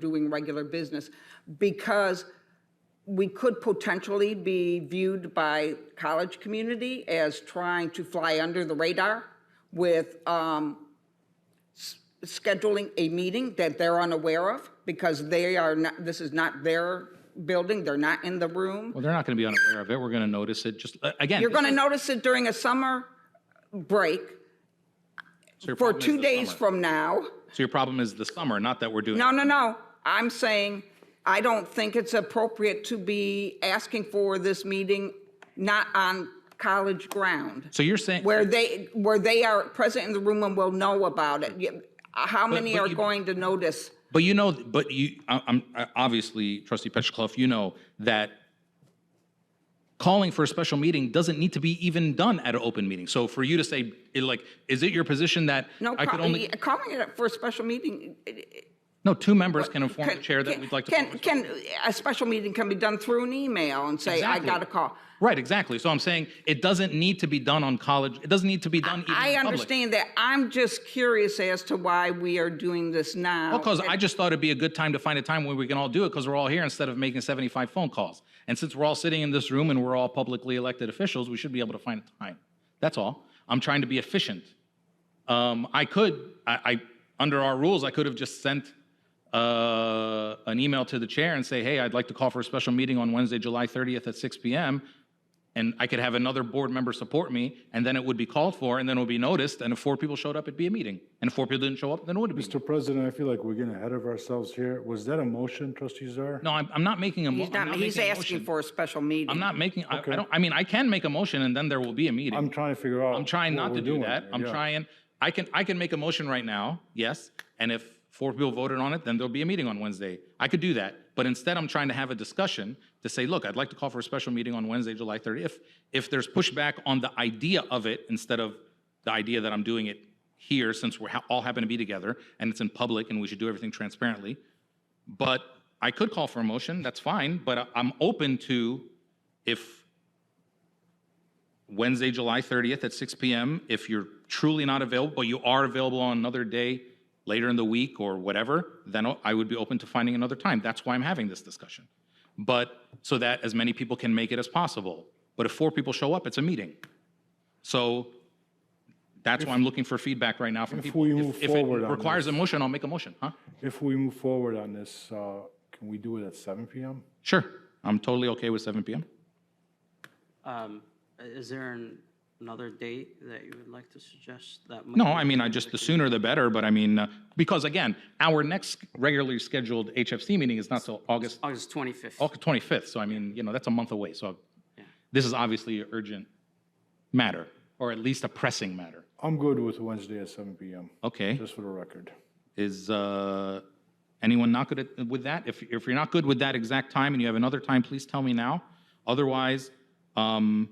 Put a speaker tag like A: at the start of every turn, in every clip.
A: doing regular business, because we could potentially be viewed by college community as trying to fly under the radar with um, s- scheduling a meeting that they're unaware of, because they are not, this is not their building, they're not in the room.
B: Well, they're not going to be unaware of it. We're going to notice it. Just, uh, again.
A: You're going to notice it during a summer break for two days
B: from.
A: from now.
B: So your problem is the summer, not that we're doing.
A: No, no, no. I'm saying, I don't think it's appropriate to be asking for this meeting not on college ground,
B: So you're saying.
A: where they, where they are present in the room and will know about it. Yeah, How many
B: but
A: are
B: you-
A: going to notice?
B: But you know, but you, I- I'm, I- obviously, trustee Petchakloff, you know that calling for a special meeting doesn't need to be even done at an open meeting. So for you to say, it like, is it your position that
A: No,
B: I could
A: ca-
B: only,
A: calling it for a special meeting. eh,
B: no, two members can inform the
A: can-
B: chair that
A: can-
B: we'd like to. call a
A: Can,
B: special-
A: can, a special meeting can be done through an email and say, I
B: Exactly.
A: got a call.
B: Right, exactly. So I'm saying it doesn't need to be done on college, it doesn't need to be done even
A: I
B: in public.
A: understand that. I'm just curious as to why we are doing this now.
B: Because I just thought it'd be a good time to find a time where we can all do it because we're all here instead of making 75 phone calls. And since we're all sitting in this room and we're all publicly elected officials, we should be able to find a time. That's all. I'm trying to be efficient. Um, I could, I, I, under our rules, I could have just sent uh, an email to the chair and say, hey, I'd like to call for a special meeting on Wednesday, July 30th at 6 p.m. And I could have another board member support me, and then it would be called for, and then it would be noticed. And if four people showed up, it'd be a meeting. And if four people didn't show up, then it wouldn't be. a meeting.
C: Mr. President, I feel like we're getting ahead of ourselves here. Was that a motion, trustee Zar?
B: No, I'm, I'm not making a. mo-
A: He's
B: I'm
A: not, he's
B: making a
A: asking
B: motion.
A: for a special meeting.
B: I'm not making, I, I don't, I mean, I can make a motion and then there will be a meeting.
C: I'm trying to figure out.
B: I'm trying not to do that. I'm trying,
C: trying.
B: I can, I can make a motion right now, yes. And if four people voted on it, then there'll be a meeting on Wednesday. I could do that. But instead, I'm trying to have a discussion to say, look, I'd like to call for a special meeting on Wednesday, July 30th. If, if there's pushback on the idea of it instead of the idea that I'm doing it here since we're ha- all happen to be together and it's in public and we should do everything transparently. But I could call for a motion, that's fine, but I- I'm open to if Wednesday, July 30th at 6 PM, if you're truly not available, but you are available on another day later in the week or whatever, then I would be open to finding another time. That's why I'm having this discussion. But, so that as many people can make it as possible. But if four people show up, it's a meeting. So that's why I'm looking for feedback right now from
C: If
B: people.
C: we move forward
B: If
C: on
B: it requires a motion, I'll make a motion, huh?
C: If we move forward on this, uh, can we do it at seven PM?
B: Sure, I'm totally okay with 7 PM.
D: Um, i- Is there an- another date that you would like to suggest that? might
B: No,
D: be
B: I mean, I
D: okay
B: just, the
D: with
B: sooner the better, but I mean, uh, because again, our next regularly scheduled HFC meeting is not till August,
D: August 25th.
B: August 25th, so I mean, you know, that's a month away, so
D: Yeah.
B: this is obviously an urgent matter, or at least a pressing matter.
C: I'm good with Wednesday at seven PM,
B: Okay,
C: just for the record.
B: is uh, anyone not good at- with that? If, if you're not good with that exact time and you have another time, please tell me now. Otherwise, um,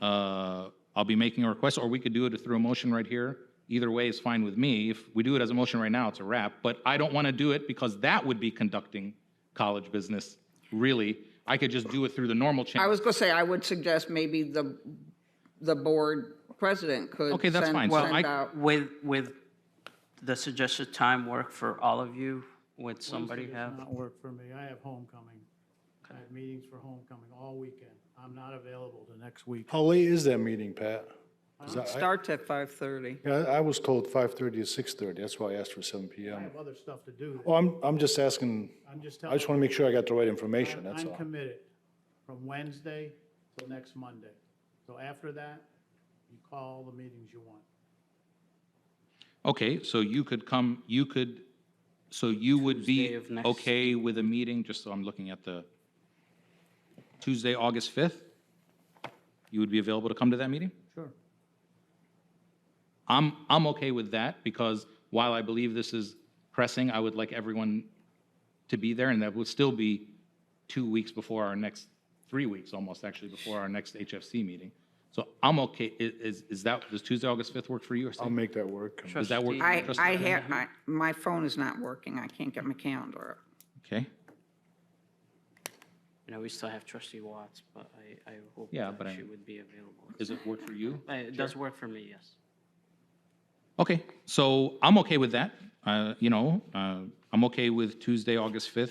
B: uh, I'll be making a request, or we could do it through a motion right here. Either way is fine with me. If we do it as a motion right now, it's a wrap. But I don't want to do it because that would be conducting college business, really. I could just do it through the normal
A: I
B: channel.
A: was going to say, I would suggest maybe the, the board president could.
B: Okay, that's
A: send-
B: fine. So
A: send
B: I-
A: out-
D: With, with the suggested time work for all of you, would somebody
E: Wednesday does
D: have?
E: Not work for me. I have homecoming. I have meetings for homecoming all weekend. I'm not available the next week.
C: How late is that meeting, Pat? 'Cause I- I-
A: Starts at 5:30.
C: Yeah, I was told five thirty to six thirty. That's why I asked for seven
E: I
C: PM.
E: have other stuff to do.
C: Well, I'm, I'm just asking,
E: I'm just
C: I
E: telling
C: just want to make sure I got the right information,
E: you,
C: that's
E: I'm
C: all.
E: committed from Wednesday till next Monday. So after that, you call the meetings you want.
B: Okay, so you could come, you could, so you would
D: Tuesday
B: be
D: of next-
B: okay with a meeting, just so I'm looking at the Tuesday, August 5th? You would be available to come to that meeting?
E: Sure.
B: I'm, I'm okay with that because while I believe this is pressing, I would like everyone to be there and that would still be two weeks before our next, three weeks almost actually, before our next HFC meeting. So I'm okay, i- is, is that, does Tuesday, August 5th work for you or
C: I'll make that work.
B: does that work? for
A: I,
B: Trustee
A: I
B: Bennett?
A: have, I- my phone is not working. I can't get my calendar up.
B: Okay,
D: You know, we still have trustee Watts, but I, I hope
B: Yeah,
D: that
B: but I-
D: she would be available.
B: does it work for you?
D: Uh, It does work for me, yes.
B: Okay, so I'm okay with that. Uh, You know, uh, I'm okay with Tuesday, August 5th